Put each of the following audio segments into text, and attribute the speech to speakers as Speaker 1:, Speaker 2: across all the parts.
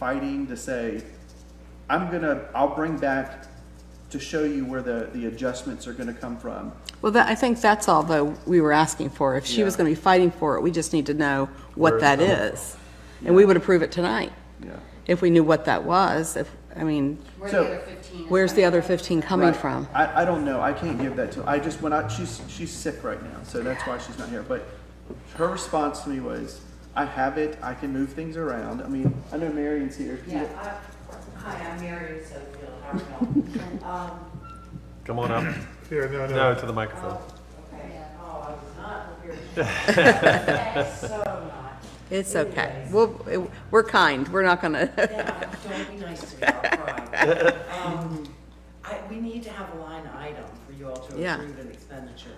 Speaker 1: fighting to say, I'm gonna, I'll bring back to show you where the, the adjustments are gonna come from.
Speaker 2: Well, that, I think that's all, though, we were asking for. If she was
Speaker 1: Yeah.
Speaker 2: going to be fighting for it, we just need to know what
Speaker 3: Where it's
Speaker 2: that
Speaker 3: coming
Speaker 2: is. And we would approve it tonight,
Speaker 1: Yeah.
Speaker 2: if we knew what that was, if, I mean,
Speaker 4: Where
Speaker 1: So-
Speaker 4: the other fifteen? is
Speaker 2: where's the
Speaker 4: coming
Speaker 2: other
Speaker 4: from.
Speaker 2: 15 coming
Speaker 1: Right.
Speaker 2: from?
Speaker 1: I, I don't know, I can't give that to, I just went out, she's, she's sick right now, so that's why she's not here, but her response to me was, I have it, I can move things around, I mean, I know Marion's here.
Speaker 5: Yeah, I- hi, I'm Mary Sofield, how are you?
Speaker 3: Come on up.
Speaker 6: Here, no,
Speaker 3: No,
Speaker 6: no.
Speaker 3: to the microphone.
Speaker 5: Okay, oh, I was not prepared. So not.
Speaker 2: It's okay. We'll, we're kind, we're not going to,
Speaker 5: Yeah, don't be nice to me, I'll cry. Um, I, we need to have a line item for you all to
Speaker 2: Yeah.
Speaker 5: approve an expenditure.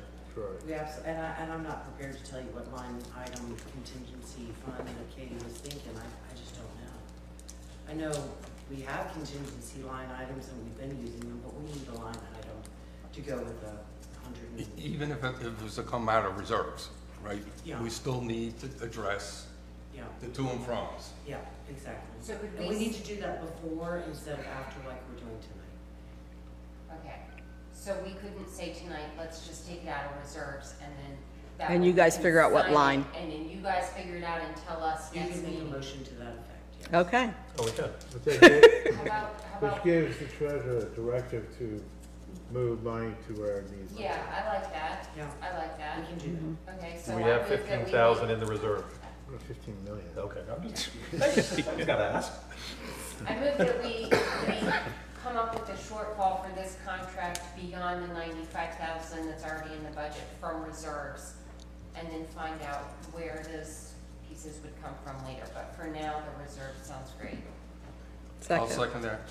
Speaker 5: We abs, and I, and I'm not prepared to tell you what line item contingency fund that Katie was thinking, I, I just don't know. I know we have contingency line items and we've been using them, but we need a line item to go with the hundred
Speaker 7: E-
Speaker 5: and
Speaker 7: Even if it if it was to come out of reserves, right?
Speaker 5: Yeah.
Speaker 7: We still need to address
Speaker 5: Yeah,
Speaker 7: the to and froms.
Speaker 5: yeah, exactly.
Speaker 4: So could
Speaker 5: And
Speaker 4: we
Speaker 5: we need
Speaker 4: s-
Speaker 5: to do that before instead of after like we're doing tonight.
Speaker 4: Okay, so we couldn't say tonight, let's just take it out of reserves and then. that
Speaker 2: And
Speaker 4: way
Speaker 2: you
Speaker 4: we
Speaker 2: guys
Speaker 4: can
Speaker 2: figure out what
Speaker 4: sign it,
Speaker 2: line.
Speaker 4: And then you guys figure it out and tell us
Speaker 5: You
Speaker 4: next
Speaker 5: can make a
Speaker 4: meeting.
Speaker 5: motion to that effect, yeah.
Speaker 2: okay.
Speaker 3: Oh, we can.
Speaker 6: But that ga-
Speaker 4: How about, how
Speaker 6: Which
Speaker 4: about,
Speaker 6: gives the treasurer directive to move money to where it needs.
Speaker 4: yeah, I like that,
Speaker 5: Yeah.
Speaker 4: I like that.
Speaker 5: We can do that.
Speaker 2: Mm-hmm.
Speaker 4: Okay, so.
Speaker 3: We
Speaker 4: I
Speaker 3: have
Speaker 4: move that we
Speaker 3: fifteen thousand
Speaker 4: make-
Speaker 3: in the reserve.
Speaker 6: Or Fifteen million.
Speaker 3: Okay. I'm just- He's gotta ask.
Speaker 4: I move that we, we come up with a shortfall for this contract beyond the ninety-five thousand that's already in the budget from reserves, and then find out where those pieces would come from later, but for now, the reserve sounds great.
Speaker 7: I'll
Speaker 2: Second.
Speaker 7: second that.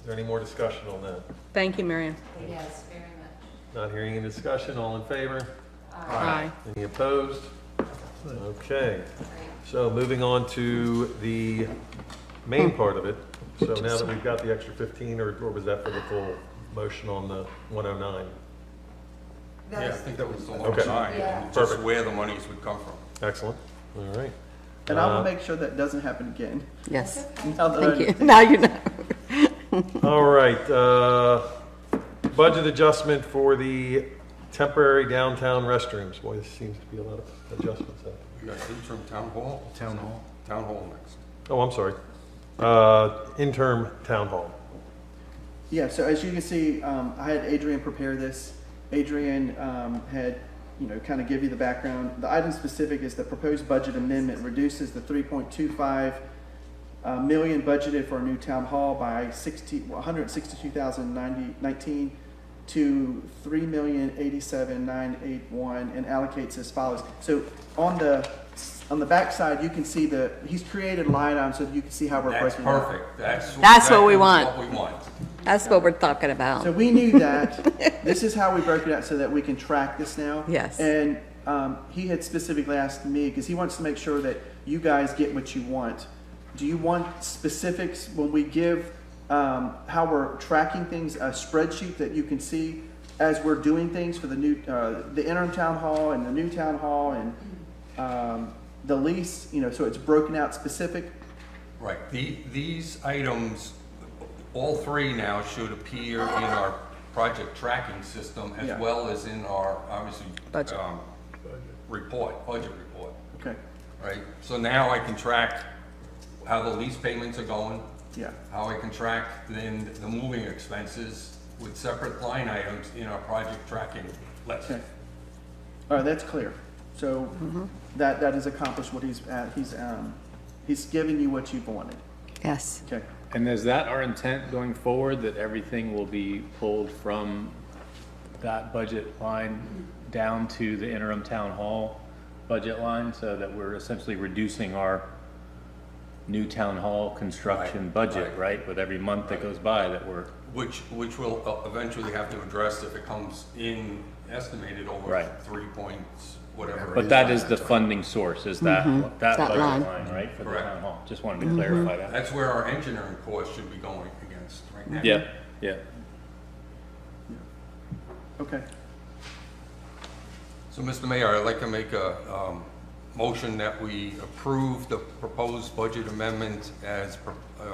Speaker 3: Is there any more discussion on that?
Speaker 2: Thank you, Marion.
Speaker 4: Yes, very much. Uh,
Speaker 3: Not hearing any discussion. All in favor?
Speaker 2: Aye.
Speaker 3: Any opposed? Okay.
Speaker 4: Great.
Speaker 3: So moving on to the main part of it. So now that we've got the extra fifteen, or or was that for the full motion on the one oh nine?
Speaker 7: Yeah, I think that was the long
Speaker 3: Okay.
Speaker 7: time. and Just
Speaker 3: Perfect.
Speaker 7: where the monies would come from.
Speaker 3: Excellent. All right.
Speaker 1: And I will
Speaker 3: Uh,
Speaker 1: make sure that doesn't happen again.
Speaker 2: Yes,
Speaker 1: Now that I
Speaker 2: thank you.
Speaker 1: understand.
Speaker 2: Now you know.
Speaker 3: All right, uh, budget adjustment for the temporary downtown restrooms. Boy, this seems to be a lot of adjustments. out
Speaker 7: We got interim town hall. Town hall. Town hall next.
Speaker 3: there. Oh, I'm sorry. Uh, interim town hall.
Speaker 1: Yeah, so as you can see, um, I had Adrian prepare this. Adrian um, had, you know, kind of give you the background. The item specific is the proposed budget amendment reduces the 3.25 uh, million budgeted for a new town hall by 60, 162,019 to 3,087,981 and allocates as follows. So on the on the back side, you can see the he's created line items so that you can see how we're
Speaker 7: That's
Speaker 1: breaking it up.
Speaker 7: perfect. That's.
Speaker 2: That's what we
Speaker 7: exactly
Speaker 2: want.
Speaker 7: What we want.
Speaker 2: That's what we're talking
Speaker 1: So
Speaker 2: about.
Speaker 1: we knew that. this is how we broke it out so that we can track this now.
Speaker 2: Yes.
Speaker 1: And um, he had specifically asked me because he wants to make sure that you guys get what you want. Do you want specifics when we give um, how we're tracking things, a spreadsheet that you can see as we're doing things for the new, uh, the interim town hall and the new town hall and um, the lease, you know, so it's broken out specific?
Speaker 7: Right. The, these items, all three now should appear in our project tracking system as
Speaker 1: Yeah.
Speaker 7: well as in our, obviously,
Speaker 2: Budget.
Speaker 7: um, report, budget report.
Speaker 1: Okay.
Speaker 7: right? So now I can track how the lease payments are going,
Speaker 1: Yeah.
Speaker 7: how I can track then the moving expenses with separate line items in our project tracking list.
Speaker 1: Okay. All right, that's clear. So that, that is accomplished what he's, at- he's, um, he's given you what you've wanted.
Speaker 2: Yes,
Speaker 1: Okay.
Speaker 8: And is that our intent going forward, that everything will be pulled from that budget line down to the interim town hall budget line, so that we're essentially reducing our new town hall construction
Speaker 7: Right,
Speaker 8: budget,
Speaker 7: right.
Speaker 8: right? With every month that goes by that we're,
Speaker 7: Which, which we'll uh, eventually have to address if it comes in estimated over
Speaker 8: Right.
Speaker 7: three points, whatever.
Speaker 8: but that is the funding source, is that, that
Speaker 2: Mm-hmm. That
Speaker 8: budget
Speaker 2: line. Mm-hmm.
Speaker 8: line, right, for the
Speaker 7: Correct.
Speaker 8: town hall? Just wanted to clarify that.
Speaker 7: That's where our engineering costs should be going against right now.
Speaker 8: Yeah, yeah.
Speaker 1: Okay.
Speaker 7: So, Mr. Mayor, I'd like to make a, um, motion that we approve the proposed budget amendment as pro- uh,